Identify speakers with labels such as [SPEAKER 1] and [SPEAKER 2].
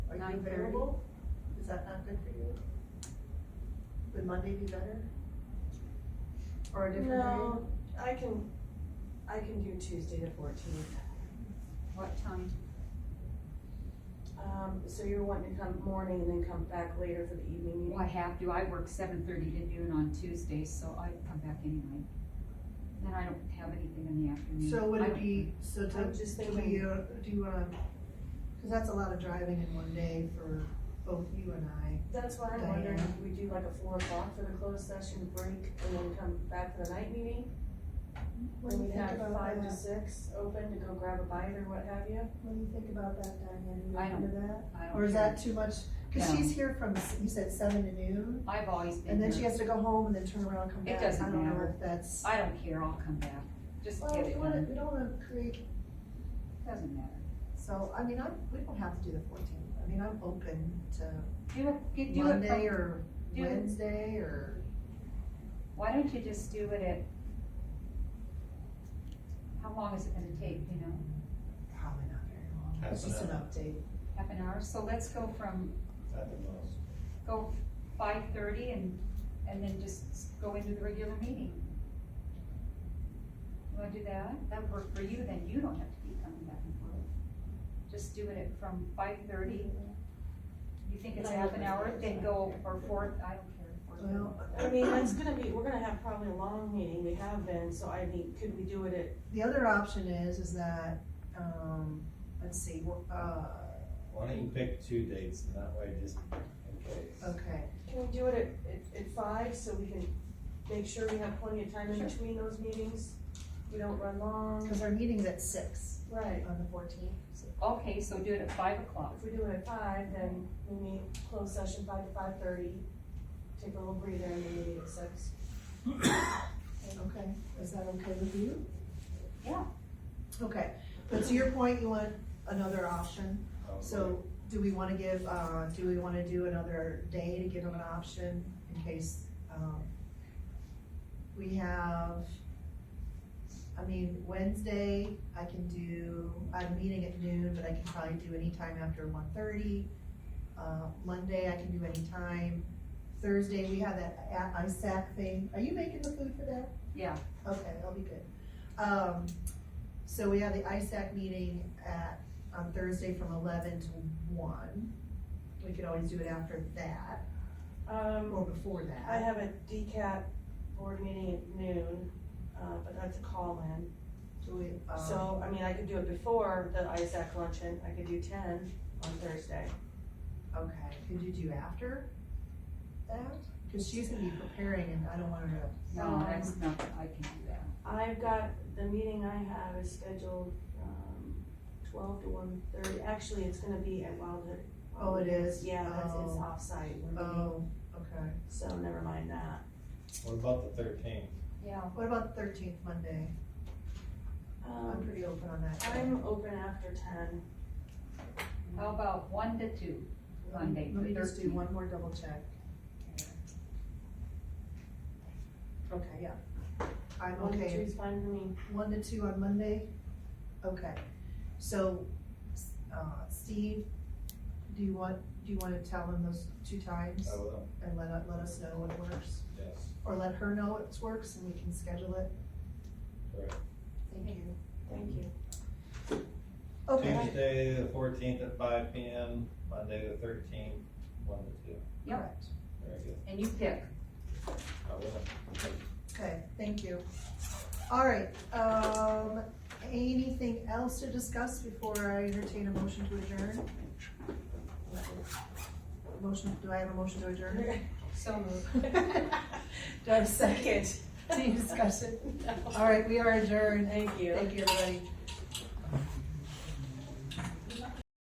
[SPEAKER 1] nine thirty.
[SPEAKER 2] available? Is that not good for you? Would Monday be better? Or a different day?
[SPEAKER 3] No, I can, I can do Tuesday the fourteenth.
[SPEAKER 1] What time?
[SPEAKER 3] Um, so you're wanting to come morning and then come back later for the evening
[SPEAKER 1] Well, I
[SPEAKER 3] meeting?
[SPEAKER 1] have to, I work seven thirty to noon on Tuesdays, so I come back anyway. Then I don't have anything in the afternoon.
[SPEAKER 2] So would
[SPEAKER 1] I
[SPEAKER 2] it
[SPEAKER 1] don't-
[SPEAKER 2] be, so to,
[SPEAKER 3] I'm just
[SPEAKER 2] do we,
[SPEAKER 3] thinking-
[SPEAKER 2] uh, do you wanna, cause that's a lot of driving in one day for both you and I.
[SPEAKER 3] That's why I'm wondering if we do like a four o'clock for the closed session break and then come back for the night meeting?
[SPEAKER 4] What do you
[SPEAKER 3] And we
[SPEAKER 4] think
[SPEAKER 3] have
[SPEAKER 4] about
[SPEAKER 3] five to
[SPEAKER 4] that?
[SPEAKER 3] six open to go grab a bite or what have you?
[SPEAKER 4] What do you think about that, Diane? You
[SPEAKER 1] I don't-
[SPEAKER 4] into that?
[SPEAKER 1] I don't
[SPEAKER 2] Or is
[SPEAKER 1] care.
[SPEAKER 2] that too much? Cause
[SPEAKER 1] No.
[SPEAKER 2] she's here from, s- you said seven to noon,
[SPEAKER 1] I've always been
[SPEAKER 2] and then she
[SPEAKER 1] here.
[SPEAKER 2] has to go home and then turn around and come
[SPEAKER 1] Mm-hmm. It
[SPEAKER 2] back.
[SPEAKER 1] doesn't
[SPEAKER 2] I don't know
[SPEAKER 1] matter.
[SPEAKER 2] if that's,
[SPEAKER 1] I don't care, I'll come back. Just
[SPEAKER 2] well,
[SPEAKER 1] get
[SPEAKER 2] we
[SPEAKER 1] it
[SPEAKER 2] wanna,
[SPEAKER 1] done.
[SPEAKER 2] we don't wanna create,
[SPEAKER 1] Doesn't matter.
[SPEAKER 2] so, I mean, I, we don't have to do the fourteenth. I mean, I'm open to
[SPEAKER 1] Do it, get- do it
[SPEAKER 2] Monday
[SPEAKER 1] from,
[SPEAKER 2] or
[SPEAKER 1] do it-
[SPEAKER 2] Wednesday or.
[SPEAKER 1] why don't you just do it at? How long is it gonna take, you know,
[SPEAKER 2] Probably not very long.
[SPEAKER 5] Half
[SPEAKER 2] It's
[SPEAKER 5] an
[SPEAKER 2] just an
[SPEAKER 5] hour.
[SPEAKER 2] update.
[SPEAKER 1] half an hour? So let's go from,
[SPEAKER 5] At the most.
[SPEAKER 1] go five thirty and, and then just s- go into the regular meeting. You wanna do that? That would work for you, then you don't have to be coming back and forth. Just do it at from five thirty. You think it's half an hour, then go, or four, I don't care. four thirty.
[SPEAKER 2] Well,
[SPEAKER 3] I mean, that's gonna be, we're gonna have probably a long meeting, we have been, so I mean, could we do it at
[SPEAKER 2] the other option is, is that, um, let's see, we're, uh,
[SPEAKER 5] Why don't you pick two dates and that way just in case.
[SPEAKER 2] okay.
[SPEAKER 3] Can we do it at, at, at five, so we can make sure we have plenty of time in
[SPEAKER 1] Sure.
[SPEAKER 3] between those meetings? We don't run long.
[SPEAKER 2] Cause our meeting's at six
[SPEAKER 3] Right.
[SPEAKER 2] on the fourteenth.
[SPEAKER 1] Okay, so do it at five o'clock.
[SPEAKER 3] If we do it at five, then we meet, close session five to five thirty, take a little breather and then meet at six.
[SPEAKER 2] Okay, is that okay with you?
[SPEAKER 1] Yeah.
[SPEAKER 2] Okay, but to your point, you want another option,
[SPEAKER 5] Um,
[SPEAKER 2] so do we wanna give, uh, do we wanna do another day to give them an option in case, um, we have, I mean, Wednesday, I can do, I'm meeting at noon, but I can probably do any time after one thirty. Uh, Monday, I can do any time. Thursday, we have that a- ISAC thing. Are you making the food for that?
[SPEAKER 1] Yeah.
[SPEAKER 2] Okay, I'll be good. Um, so we have the ISAC meeting at, on Thursday from eleven to one. We could always do it after that, or
[SPEAKER 3] Um,
[SPEAKER 2] before that.
[SPEAKER 3] I have a DCAT board meeting at noon, uh, but that's a call-in.
[SPEAKER 2] Do we, um,
[SPEAKER 3] So, I mean, I could do it before the ISAC luncheon, I could do ten on Thursday.
[SPEAKER 2] Okay, could you do after that? Cause she's gonna be preparing and I don't want her
[SPEAKER 1] No, that's not, I can do that.
[SPEAKER 3] I've got, the meeting I have is scheduled, um, twelve to one thirty, actually, it's gonna be at Wildwood.
[SPEAKER 2] Oh, it is?
[SPEAKER 3] Yeah, that's, it's
[SPEAKER 2] Oh.
[SPEAKER 3] offsite, we're
[SPEAKER 2] to,
[SPEAKER 3] meeting,
[SPEAKER 2] oh, okay.
[SPEAKER 3] so never mind that.
[SPEAKER 5] What about the thirteenth?
[SPEAKER 1] Yeah.
[SPEAKER 2] What about the thirteenth Monday? I'm
[SPEAKER 3] Um,
[SPEAKER 2] pretty open on that.
[SPEAKER 3] I'm open after ten,
[SPEAKER 1] How about one to two? Monday,
[SPEAKER 2] Let me just do
[SPEAKER 1] 13th.
[SPEAKER 2] one more double check. Okay, yeah. I'm
[SPEAKER 3] one to
[SPEAKER 2] okay,
[SPEAKER 3] two's fine for me.
[SPEAKER 2] one to two on Monday? Okay, so, uh, Steve, do you want, do you wanna tell him those two times?
[SPEAKER 5] I will,
[SPEAKER 2] And let, let us know what works,
[SPEAKER 5] yes,
[SPEAKER 2] or let her know it works and we can schedule it?
[SPEAKER 5] correct.
[SPEAKER 2] Thank you.
[SPEAKER 3] Thank you.
[SPEAKER 2] Okay,
[SPEAKER 5] Tuesday, the fourteenth at five P M, Monday, the thirteenth, one to two.
[SPEAKER 1] Yep.
[SPEAKER 2] correct.
[SPEAKER 5] Very good.
[SPEAKER 1] And you pick.
[SPEAKER 5] I will.
[SPEAKER 2] Okay, thank you. All right, um, anything else to discuss before I entertain a motion to adjourn? Motion, do I have a motion to adjourn?
[SPEAKER 1] So moved.
[SPEAKER 2] Do I have a second? Any discussion? All right, we are adjourned.
[SPEAKER 3] Thank you.
[SPEAKER 2] Thank you, everybody.